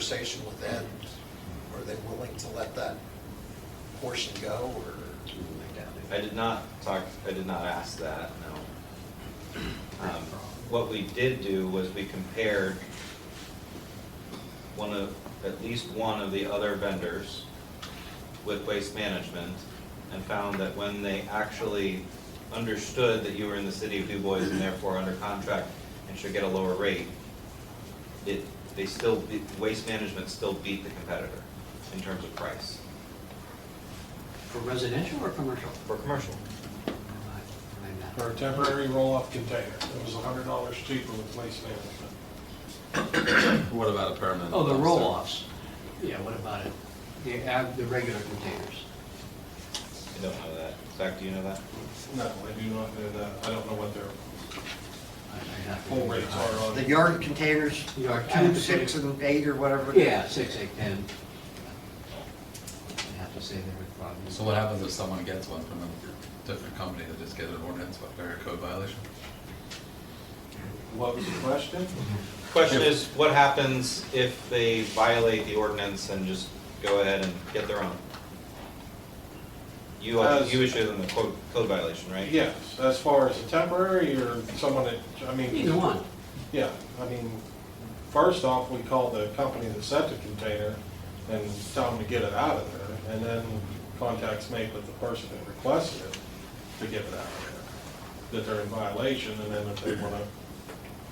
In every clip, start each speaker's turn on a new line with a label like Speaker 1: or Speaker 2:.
Speaker 1: conversation with them? Are they willing to let that portion go, or?
Speaker 2: I did not talk, I did not ask that, no. Um, What we did do was we compared one of, at least one of the other vendors with Waste Management and found that when they actually understood that you were in the city of Du Bois and therefore under contract and should get a lower rate, it, they still, beat- Waste Management still beat the competitor in terms of price
Speaker 3: For residential or commercial?
Speaker 2: for commercial.
Speaker 3: I- I'm not-
Speaker 4: for a temporary roll-off container. It was hundred dollars cheaper with waste management.
Speaker 5: What about a permanent?
Speaker 3: Oh, the
Speaker 5: dumpster?
Speaker 3: roll-offs. Yeah, what about it? The, ab- the regular containers.
Speaker 2: I don't know that. Zach, do you know that?
Speaker 4: No, I do not know that. I don't know what their
Speaker 3: I- I'd have to-
Speaker 4: full rates are uh, on.
Speaker 6: The yard containers,
Speaker 3: Yard
Speaker 6: two, six,
Speaker 3: containers.
Speaker 6: and eight, or whatever. it is.
Speaker 3: Yeah, six, eight, ten. I'd have to say there would probably.
Speaker 5: So what happens if someone gets one from a different company that just gets an ordinance, what, or a code violation?
Speaker 4: What was the question?
Speaker 2: Question is, what happens if they violate the ordinance and just go ahead and get their own? You,
Speaker 4: As-
Speaker 2: you issue them a code, code violation, right?
Speaker 4: Yes, as far as a temporary or someone that, I mean.
Speaker 3: Either one.
Speaker 4: Yeah, I mean, first off, we called the company that set the container and tell them to get it out of there, and then contacts made with the person that requested it to get it out of there, that they're in violation, and then if they want to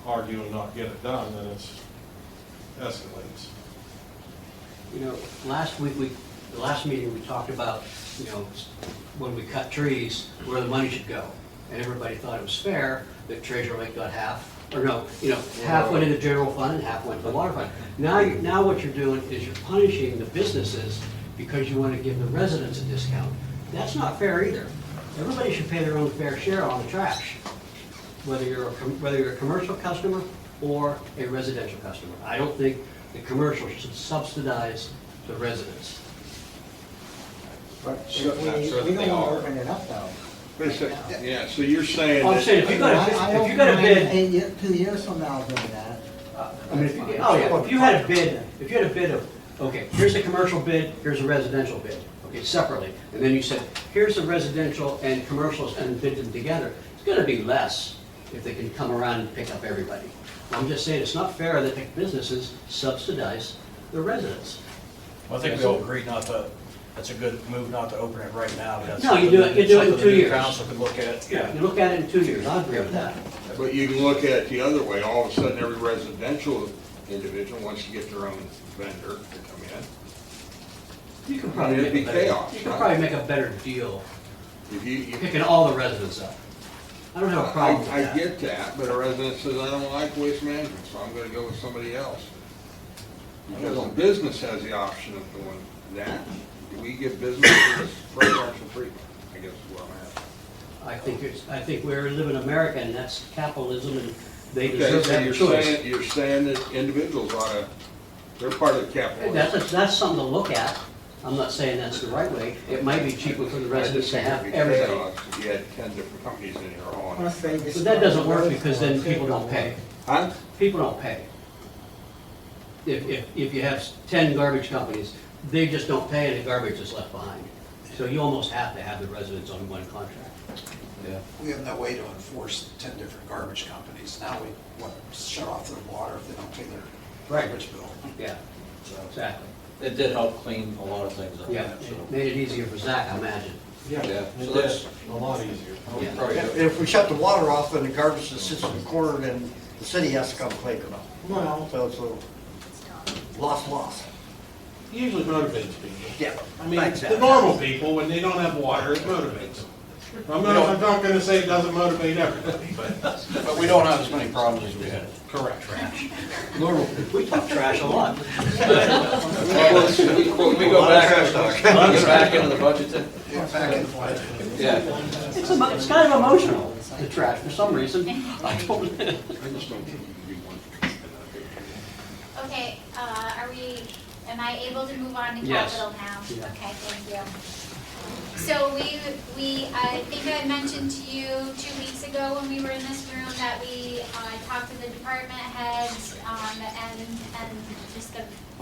Speaker 4: argue and not get it done, then it's escalates.
Speaker 3: You know, last week, we, the last meeting, we talked about, you know, s- when we cut trees, where the money should go. And everybody thought it was fair that Treasure Lake got half, or no, you know, half went into the general fund and half went to the water fund. Now, you- now what you're doing is you're punishing the businesses because you want to give the residents a discount. That's not fair either. Everybody should pay their own fair share on the trash, whether you're, a com- whether you're a commercial customer or a residential customer. I don't think the commercial should subsidize the residents.
Speaker 6: But
Speaker 2: Sure,
Speaker 6: we,
Speaker 2: not sure
Speaker 6: we
Speaker 2: that
Speaker 6: don't
Speaker 2: they
Speaker 6: want to
Speaker 2: are.
Speaker 6: open it up though.
Speaker 7: Wait a second. uh, Yeah, so you're saying.
Speaker 3: Oh, I'm
Speaker 7: that-
Speaker 3: saying, if you got
Speaker 6: I- I
Speaker 3: a, if
Speaker 6: don't
Speaker 3: you got a
Speaker 6: mind
Speaker 3: bid,
Speaker 6: eight ye- two years from now doing that.
Speaker 3: I mean, if you, oh yeah, if you had a bid, if you had a bid of, okay, here's a commercial bid, here's a residential bid, okay, separately. And then you said, here's the residential and commercials and bid them together. It's gonna be less if they can come around and pick up everybody. I'm just saying, it's not fair that the businesses subsidize the residents.
Speaker 8: Well, I think we all agree not to, that's a good move not to open it right now, but that's.
Speaker 3: No, you do it- you do it in
Speaker 8: something
Speaker 3: two
Speaker 8: the new
Speaker 3: years.
Speaker 8: Council could look at, yeah.
Speaker 3: You look at it in two years, I agree with that.
Speaker 7: But you can look at it the other way. All of a sudden, every residential individual wants to get their own vendor to come in.
Speaker 3: You can probably make
Speaker 7: It'd
Speaker 3: a
Speaker 7: be
Speaker 3: better,
Speaker 7: chaos,
Speaker 3: you can
Speaker 7: right?
Speaker 3: probably make a better deal
Speaker 7: If you, you,
Speaker 3: picking all the residents up. I don't have a problem with
Speaker 7: I,
Speaker 3: that.
Speaker 7: I get that, but a resident says, I don't like waste management, so I'm gonna go with somebody else. Because a business has the option of doing that. Do we give businesses preferential treatment? I guess is what I'm asking.
Speaker 3: I think it's, I think we live in America, and that's capitalism, and they
Speaker 7: Okay,
Speaker 3: deserve
Speaker 7: so
Speaker 3: that
Speaker 7: you're
Speaker 3: choice.
Speaker 7: saying, you're saying that individuals ought to, they're part of the capital.
Speaker 3: That's, that's something to look at. I'm not saying that's the right way. It might be cheaper for the
Speaker 7: I just
Speaker 3: residents to
Speaker 7: think
Speaker 3: have
Speaker 7: it'd be
Speaker 3: everything.
Speaker 7: chaos if You had ten different companies in here all on.
Speaker 6: Plus, they just-
Speaker 3: But that doesn't work because then people don't pay.
Speaker 7: Huh?
Speaker 3: People don't pay. If, if, if you have ten garbage companies, they just don't pay and the garbage is left behind. So you almost have to have the residents on one contract.
Speaker 5: Yeah.
Speaker 1: We have no way to enforce ten different garbage companies. Now we want to shut off their water if they don't pay their
Speaker 3: Right.
Speaker 1: garbage bill.
Speaker 3: Yeah,
Speaker 1: So,
Speaker 3: exactly.
Speaker 9: It did help clean a lot of things up.
Speaker 3: Yeah,
Speaker 9: so.
Speaker 3: it made it easier for Zach, I imagine.
Speaker 9: Yeah, so
Speaker 8: It
Speaker 9: that's,
Speaker 8: is, a lot easier.
Speaker 3: Yeah.
Speaker 9: probably
Speaker 6: If
Speaker 9: good.
Speaker 6: if we shut the water off, then the garbage that sits in the corner, then the city has to come clean it up.
Speaker 4: Well,
Speaker 6: So it's a loss, loss.
Speaker 4: usually motivates people.
Speaker 6: Yeah.
Speaker 4: I mean,
Speaker 6: Thanks,
Speaker 4: the
Speaker 6: Adam.
Speaker 4: normal people, when they don't have water, it motivates them. I'm not, I'm not gonna say it doesn't motivate everybody, but.
Speaker 9: But we don't have as many problems as we had.
Speaker 4: Correct.
Speaker 6: Normal.
Speaker 3: We talk trash a lot.
Speaker 9: Well, let's- we- well, we go back, we go back into the budget then?
Speaker 1: yeah, back and forth.
Speaker 9: Yeah.
Speaker 3: It's, emo- it's kind of emotional, the trash, for some reason. I don't,
Speaker 7: I just don't think you can do one.
Speaker 10: Okay, uh, are we, am I able to move on to
Speaker 3: Yes.
Speaker 10: capital now?
Speaker 3: Yeah.
Speaker 10: Okay, thank you. So we, we, I think I mentioned to you two weeks ago when we were in this room that we uh, talked to the department heads um, and, and just the